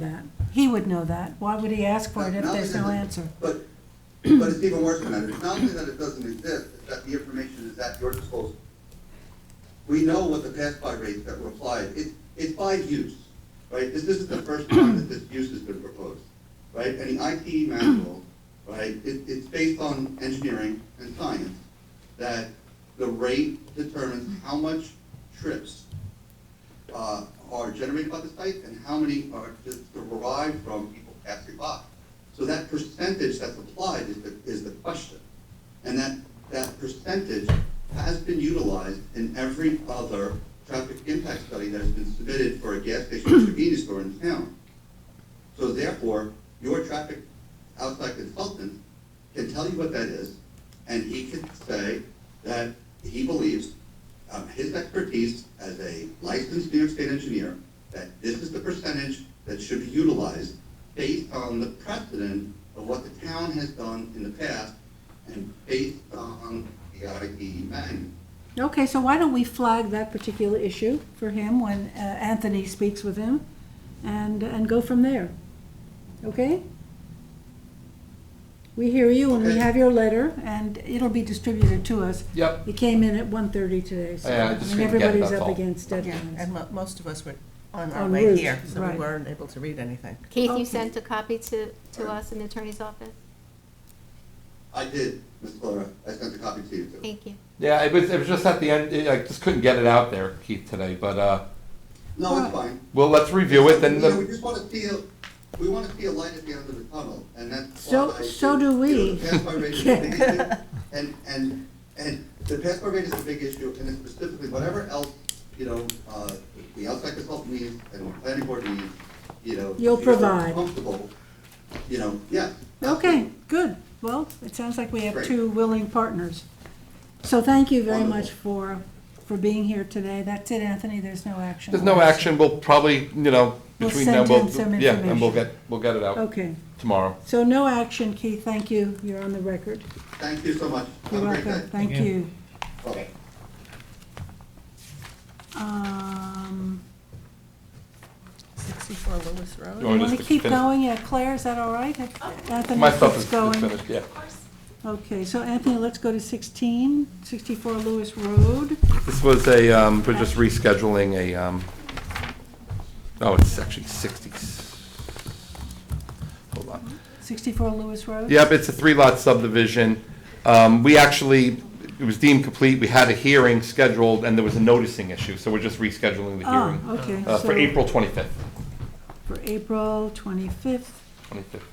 that. He would know that. Why would he ask for it if Not only there's no does it- answer? But, but it's even worse than that. It's not only that it doesn't exist, it's that the information is at your disposal. We know what the pass-by rates that were applied, it, it's by use, right? This isn't the first time that this use has been proposed, right? And the IT manual, right, it, it's based on engineering and science, that the rate determines how much trips uh, are generated by the site and how many are just derived from people passing by. So that percentage that's applied is the, is the question. And that, that percentage has been utilized in every other traffic impact study that has been submitted for a gas station or convenience store in town. So therefore, your traffic outside consultant can tell you what that is, and he can say that he believes, um, his expertise as a licensed New York State engineer, that this is the percentage that should be utilized based on the precedent of what the town has done in the past and based on the IDE manual. Okay, so why don't we flag that particular issue for him when uh, Anthony speaks with him and, and go from there? Okay? We hear you and we Okay. have your letter and it'll be distributed to us. Yep. It came in at 1:30 today, so Yeah, I I just mean, couldn't get it, everybody's that's up all. against Yeah, and deadlines. mo- most of us were on our En way route, here, so we right. weren't able to read anything. Keith, Okay. you sent a copy to, to us in the attorney's office? I did, Ms. Clara, I sent a copy to you too. Thank you. Yeah, it was, it was just at the end, it- I just couldn't get it out there, Keith, today, but, uh, No, it's fine. well, let's review it and, You know, We the- just wanna see, a- we wanna see a light at the end of the tunnel, and that's So- why I so think, do you know, we. the pass-by rate is the big issue, And, and, and the pass-by rate is a big issue, and it's specifically, whatever else, you know, uh, the outside consultant needs and the planning board needs, you know. You'll to feel provide. Comfortable, you know, yeah. Okay, good. Well, it sounds like we have Great. two willing partners. So thank you very much Wonderful. for, for being here today. That's it, Anthony, there's no action. there's no action, we'll probably, you know, We'll between now, send we'll, him some yeah, and we'll information. get, we'll get it out Okay, tomorrow. so no action, Keith, thank you, you're on the record. Thank you so much. You're Have a great welcome, day. thank Yeah. you. Bye-bye. Um, Sixty-four Lewis Road? Oh. Or You want just to keep finish- going, yeah, Claire, is that all right? Anthony My stuff keeps is is going. finished, yeah. Okay, so Anthony, let's go to 16, 64 Lewis Road. This was a, um, we're just rescheduling a, um, oh, it's actually sixty. Hold on. 64 Lewis Road? Yep, it's a three-lot subdivision. Um, We actually, it was deemed complete, we had a hearing scheduled, and there was a noticing issue, so we're just rescheduling the Ah, hearing okay, uh, for so- April 25th. For April 25th, 25th.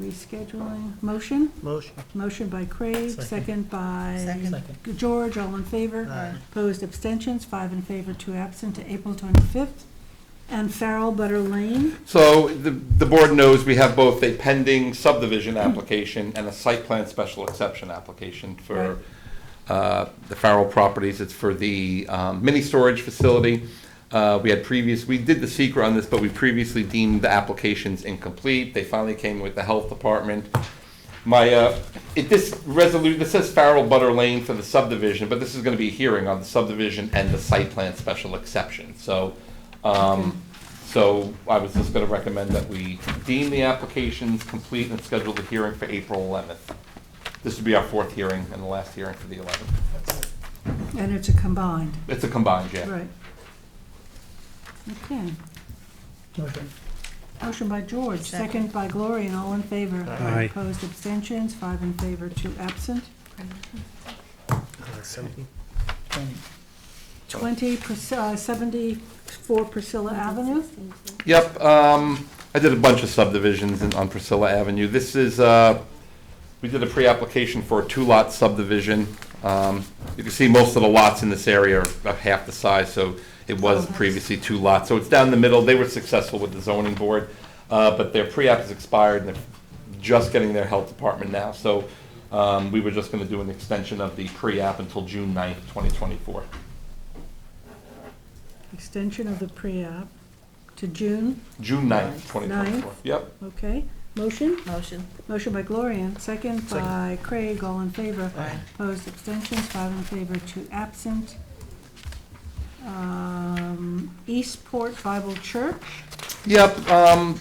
rescheduling. Motion? Motion. Motion by Craig, Second. second by Second. George, all in favor. Aye. Opposed, abstentions, five in favor, two absent, to April 25th. And Farrell Butter Lane, So the the board knows we have both a pending subdivision application and a site plan special exception application Right. for uh, the Farrell properties. It's for the um, mini storage facility. Uh, We had previous, we did the secret on this, but we previously deemed the applications incomplete. They finally came with the health department. My, uh, it, this resolution, this says Farrell Butter Lane for the subdivision, but this is gonna be a hearing on the subdivision and the site plan special exception. So, um, so I was just gonna recommend that we deem the applications complete and schedule the hearing for April eleventh. This would be our fourth hearing and the last hearing for the eleventh. and it's a combined, It's a combined, yeah. right. Okay. Motion by George, Second. second by Gloria, and all in favor. Aye. Opposed, abstentions, five in favor, two absent. Twenty, Pris- uh, 74 Priscilla Avenue. Yep, um, I did a bunch of subdivisions in, on Priscilla Avenue. This is, uh, we did a pre-application for a two-lot subdivision. Um, you can see most of the lots in this area are about half the size, so it Oh, was nice. previously two lots. So it's down the middle. They were successful with the zoning board, uh, but their pre-app is expired and they're just getting their health department now. So, um, we were just gonna do an extension of the pre-app until June 9th, twenty twenty-four. Extension of the pre-app to June, June 9th, twenty twenty-four. Ninth? Yep. okay. Motion? Motion. Motion by Gloria, second by Craig, all in favor. Aye. Opposed, abstentions, five in favor, two absent. Um, Eastport Bible Church. Yep, um,